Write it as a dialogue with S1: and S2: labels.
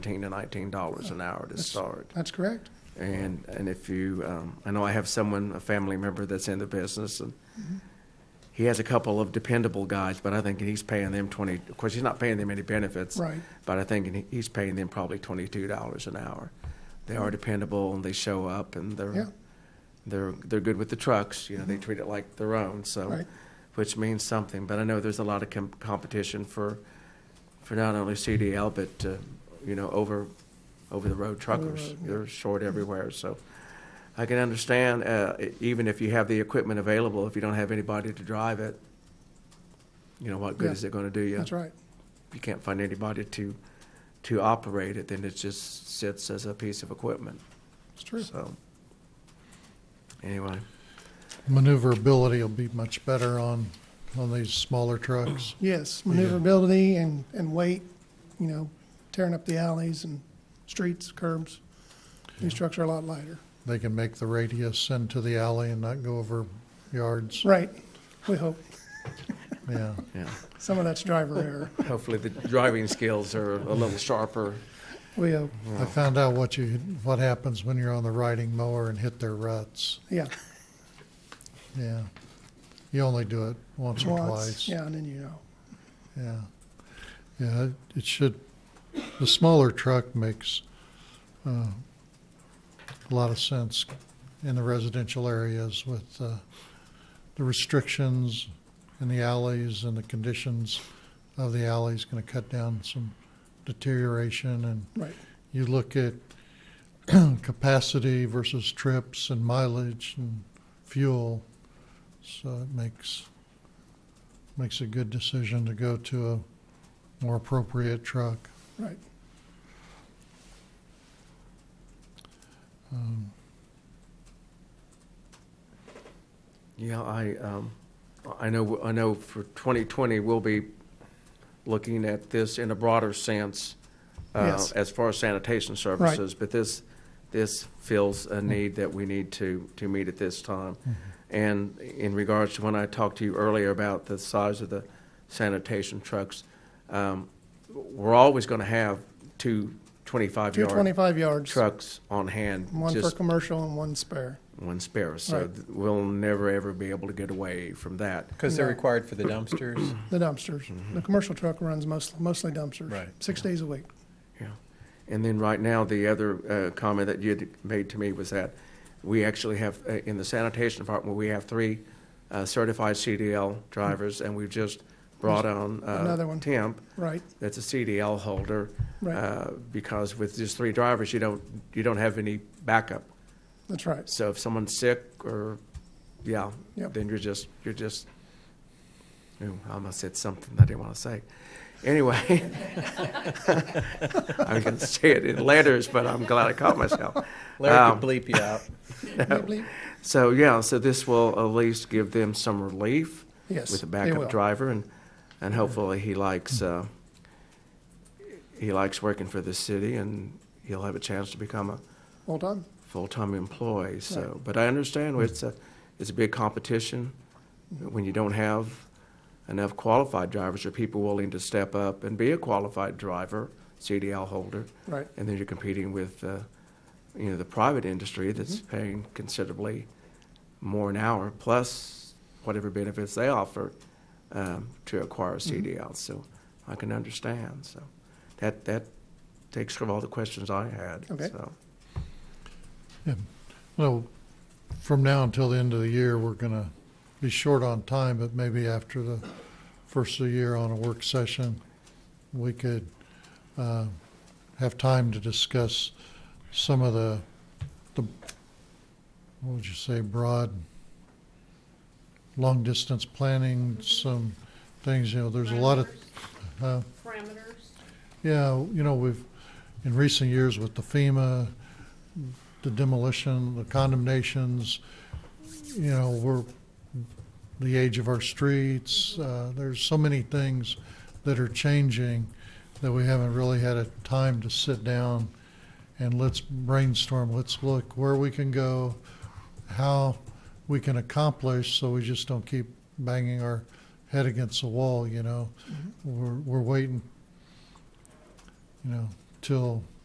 S1: 18 to 19 dollars an hour to start.
S2: That's correct.
S1: And, and if you, um, I know I have someone, a family member that's in the business and
S2: Mm-hmm.
S1: he has a couple of dependable guys, but I think he's paying them 20, of course, he's not paying them any benefits.
S2: Right.
S1: But I think he- he's paying them probably $22 an hour. They are dependable and they show up and
S2: Yeah. Mm-hmm.
S1: they're, they're, they're good with the trucks, you know, they treat it like their own, so,
S2: Right.
S1: which means something. But I know there's a lot of com- competition for, for not only CDL, but, uh, you know, over, over-the-road truckers. They're short everywhere, so I can understand, uh, e- even if you have the equipment available, if you don't have anybody to drive it, you know, what good
S2: Yeah.
S1: is it gonna do you?
S2: That's right.
S1: If you can't find anybody to, to operate it, then it just sits as a piece of equipment,
S2: It's true.
S1: so. Anyway.
S3: maneuverability will be much better on, on these smaller trucks.
S2: Yes, maneuverability and, and weight, you know, tearing up the alleys and streets, curbs. These trucks are a lot lighter.
S3: They can make the radius into the alley and not go over yards.
S2: Right, we hope.
S3: Yeah,
S1: Yeah.
S2: Some of that's driver error,
S1: Hopefully, the driving skills are a little sharper.
S2: we hope,
S3: I found out what you, what happens when you're on the riding mower and hit their ruts.
S2: yeah.
S3: Yeah. You only do it once or
S2: Once,
S3: twice.
S2: yeah, and then you know,
S3: Yeah. Yeah, it- it should, the smaller truck makes uh, a lot of sense in the residential areas with uh, the restrictions in the alleys and the conditions of the alleys going to cut down some deterioration. And
S2: right,
S3: you look at capacity versus trips and mileage and fuel. So it makes, makes a good decision to go to a more appropriate truck.
S2: right.
S3: Um,
S1: Yeah, I, um, I know, I know for 2020, we'll be looking at this in a broader sense uh,
S2: Yes.
S1: as far as sanitation services, but this, this fills
S2: Mm-hmm.
S1: a need that we need to, to meet at this time. And in regards to when I talked to you earlier about the size of the sanitation trucks, um, we're always going to have two 25-yard
S2: Two twenty-five yards,
S1: trucks on hand,
S2: one for
S1: just
S2: commercial and one spare.
S1: one spare. So
S2: Right.
S1: th- we'll never, ever be able to get away from that.
S4: Because they're
S2: No.
S4: required for the dumpsters.
S2: The dumpsters, the commercial truck runs most, mostly dumpsters.
S4: Right.
S2: Six days a week,
S1: Mm-hmm. Yeah. And then right now, the other uh, comment that you had made to me was that we actually have, uh, in the sanitation department, we have three uh, certified CDL drivers, and we've just brought on uh,
S2: Another one.
S1: temp
S2: right,
S1: that's a CDL holder.
S2: Right.
S1: uh, Because with just three drivers, you don't, you don't have any backup.
S2: that's right,
S1: So if someone's sick or, yeah,
S2: Yep.
S1: then you're just, you're just, ooh, I almost said something I didn't want to say. Anyway, I can say it in letters, but I'm glad I caught myself.
S4: Larry
S1: Um,
S4: could bleep you out.
S2: Bleep, bleep.
S1: So, yeah, so this will at least give them some relief.
S2: Yes,
S1: With a
S2: they
S1: backup
S2: will.
S1: driver and, and hopefully he likes, uh, he likes working for the city and he'll have a chance to become a,
S2: hold on,
S1: full-time employee, so, but I understand it's a, it's a big competition when you don't have enough qualified drivers or people willing to step up and be a qualified driver, CDL holder,
S2: right,
S1: and then you're competing with, uh, you know, the private industry that's paying considerably more an hour, plus whatever benefits they offer um, to acquire a CDL, so I can understand, so. That, that takes care of all the questions I had,
S2: Okay.
S1: so.
S3: Well, from now until the end of the year, we're going to be short on time, but maybe after the first of the year on a work session, we could uh, have time to discuss some of the, the, what would you say, broad, long-distance planning, some things, you know, there's a lot of, huh?
S5: parameters.
S3: Yeah, you know, we've, in recent years with the FEMA, the demolition, the condemnations, you know, we're, the age of our streets, uh, there's so many things that are changing that we haven't really had a time to sit down and let's brainstorm, let's look where we can go, how we can accomplish, so we just don't keep banging our head against the wall, you know? We're, we're waiting you know, till